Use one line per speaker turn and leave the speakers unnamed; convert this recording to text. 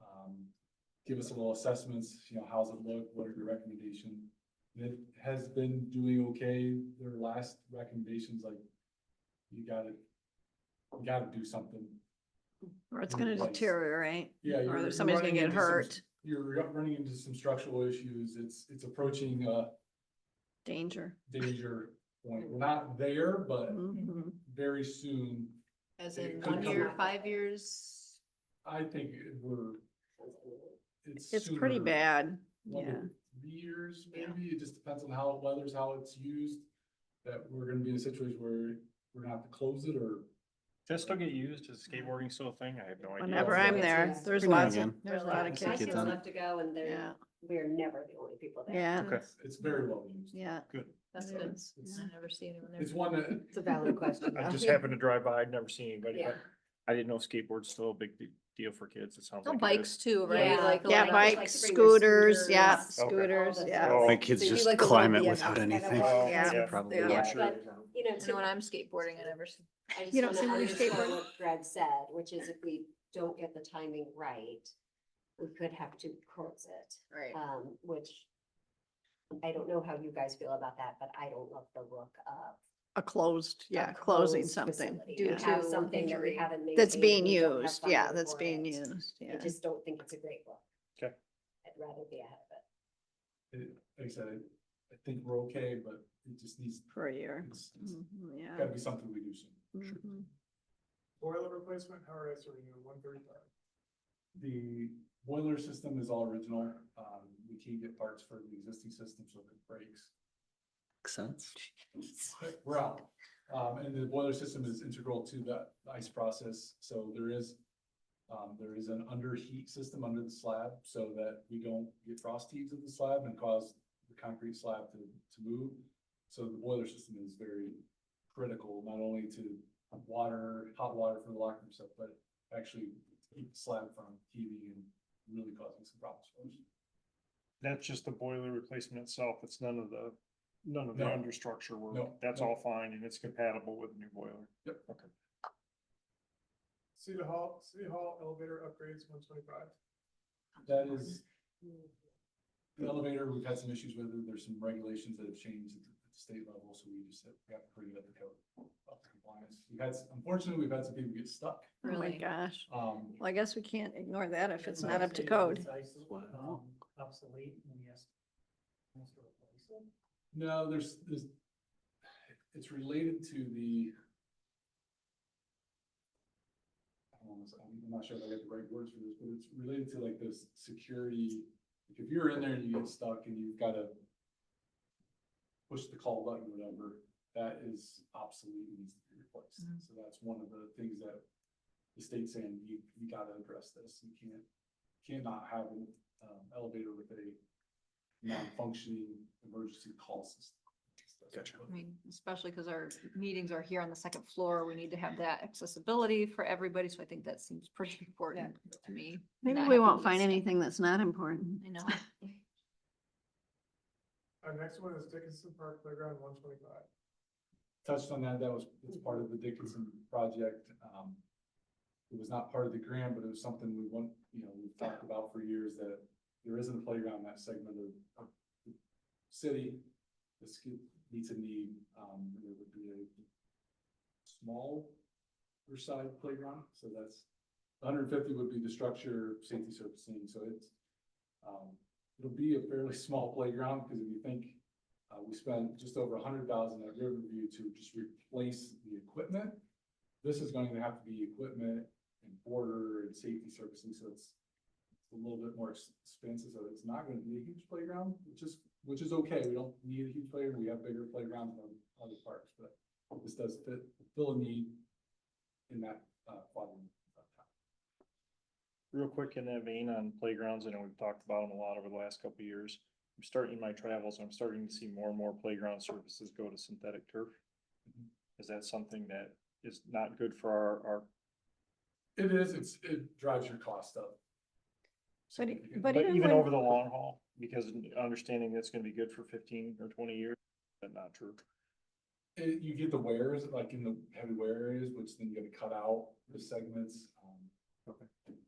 um, give us a little assessments, you know, how's it look, what are your recommendations? And it has been doing okay, their last recommendations, like, you gotta, you gotta do something.
Or it's gonna
Place.
deteriorate,
Yeah. you're-
or
you're
that somebody's gonna
running
get
into some-
hurt,
You're running into some structural issues, it's, it's approaching, uh,
danger.
danger point. We're not there, but
Mhm.
very soon,
As
It
in
could
one
come
year,
up.
five years,
I think it- we're. It's
It's pretty
sooner,
bad,
one to
yeah.
Three years,
Yeah.
maybe, it just depends on how it weathers, how it's used, that we're gonna be in a situation where we're gonna have to close it or.
Does it still get used? Is skateboarding still a thing? I have no idea.
Whenever
Yeah.
I'm there,
Yeah.
there's
Every now and
lots of,
again.
there's a lot of
Just like
My
kids.
kids
kids
on it.
love to go and
Yeah,
they're, we're never the only people there.
yeah,
It's- It's very well used.
yeah.
That's
Yeah.
good.
It's-
I never see anyone there.
It's one that,
It's a valid
Uh,
question.
I just
though.
happened to drive by. I'd never seen anybody,
Yeah.
but I didn't know skateboard's still a big de- deal for kids. It sounds like.
No
it
bikes
is.
too,
Yeah.
right? Like a
Yeah,
lot of- like
bikes,
to bring your
scooters, yeah,
scooters,
scooters,
all the
yeah.
things.
My kids
So you do
just
like the
climb
low
it
BMX
without
kind of
anything.
walk.
Yeah.
That's
Yeah.
probably
Yeah.
what-
Yeah,
sure.
but, you know,
And
to
when I'm skateboarding, I never, see-
I just
You don't
wanna
see many
underscore
skateboard-
what Greg said, which is if we don't get the timing right, we could have to close it,
right,
um, which I don't know how you guys feel about that, but I don't love the look of.
A closed,
a
yeah, closing
closed
something.
facility.
yeah.
We have
to
something that we
injury.
haven't made.
That's being used, yeah, that's being used,
I
yeah.
just don't think it's a great look.
Okay.
I'd rather be ahead of it.
it- like I said, I- I think we're okay, but it just needs,
For a year,
it's, it's
Mhm, yeah.
gotta be something we do soon.
Mhm.
Boiler replacement, how are you answering you, one thirty-five?
The boiler system is all original. Um, we can't get parts for the existing system, so if it breaks,
Makes sense.
we're out. Um, and the boiler system is integral to the ice process, so there is, um, there is an underheat system under the slab so that we don't get frost heaves of the slab and cause the concrete slab to, to move. So the boiler system is very critical, not only to water, hot water for the locker room stuff, but actually keep the slab from heaving and really causing some problems for us.
That's just the boiler replacement itself. It's none of the, none of the
No.
understructure work.
No,
That's
no.
all fine and it's compatible with the new boiler.
City Hall, City Hall elevator upgrades, one twenty-five.
That is, the elevator, we've had some issues with it. There's some regulations that have changed at the at the state level, so we just have got to bring it up to code. up to compliance. We've had, s- unfortunately, we've had some people get stuck.
Oh my
really.
gosh.
Um,
Well, I guess we can't ignore that if it's not up to
Obsolete,
code.
obsolete,
Wow.
um, Obsolete, and yes. has to replace it.
no, there's, there's, it's related to the I don't know, I'm not sure if I got the right words for this, but it's related to like this security, like, if you're in there and you get stuck and you've gotta push the call button, or whatever, that is obsolete and needs to be replaced. So that's one of the things that the state's saying, you, you gotta address this. You can't, cannot have an um, elevator with a non-functioning emergency call system.
Gotcha.
I mean, especially because our meetings are here on the second floor, we need to have that accessibility for everybody, so I think that seems pretty important to me.
Maybe
not
we
having
won't
these-
find anything that's not important.
I know,
Our next one is Dickinson Park Playground, one twenty-five.
touched on that, that was, it's part of the Dickinson project. Um, It was not part of the grant, but it was something we want, you know, we've talked about for years that there isn't a playground in that segment of- of the city. This could- needs a need, um, there would be a small side playground, so that's hundred and fifty would be the structure, safety surfacing, so it's um, it'll be a fairly small playground, because if you think uh, we spent just over a hundred thousand at Riverview to just replace the equipment. This is going to have to be equipment and border and safety servicing, so it's a little bit more ex- expensive, so it's not gonna be a huge playground, which is, which is okay, we don't need a huge playground, we have bigger playgrounds than other parks, but this does fit, fill a need in that, uh, quadrant.
Real quick in that vein on playgrounds, I know we've talked about them a lot over the last couple of years. I'm starting my travels, I'm starting to see more and more playground surfaces go to synthetic turf.
Mhm.
Is that something that is not good for our, our
It is, it's, it drives your cost up.
But e-
significantly.
but
But
even
even
when-
over the long haul, because understanding that's gonna be good for fifteen or twenty years, but not true.
It, you get the wares, like in the heavy wear areas, which then you gotta cut out the segments, um.
Okay.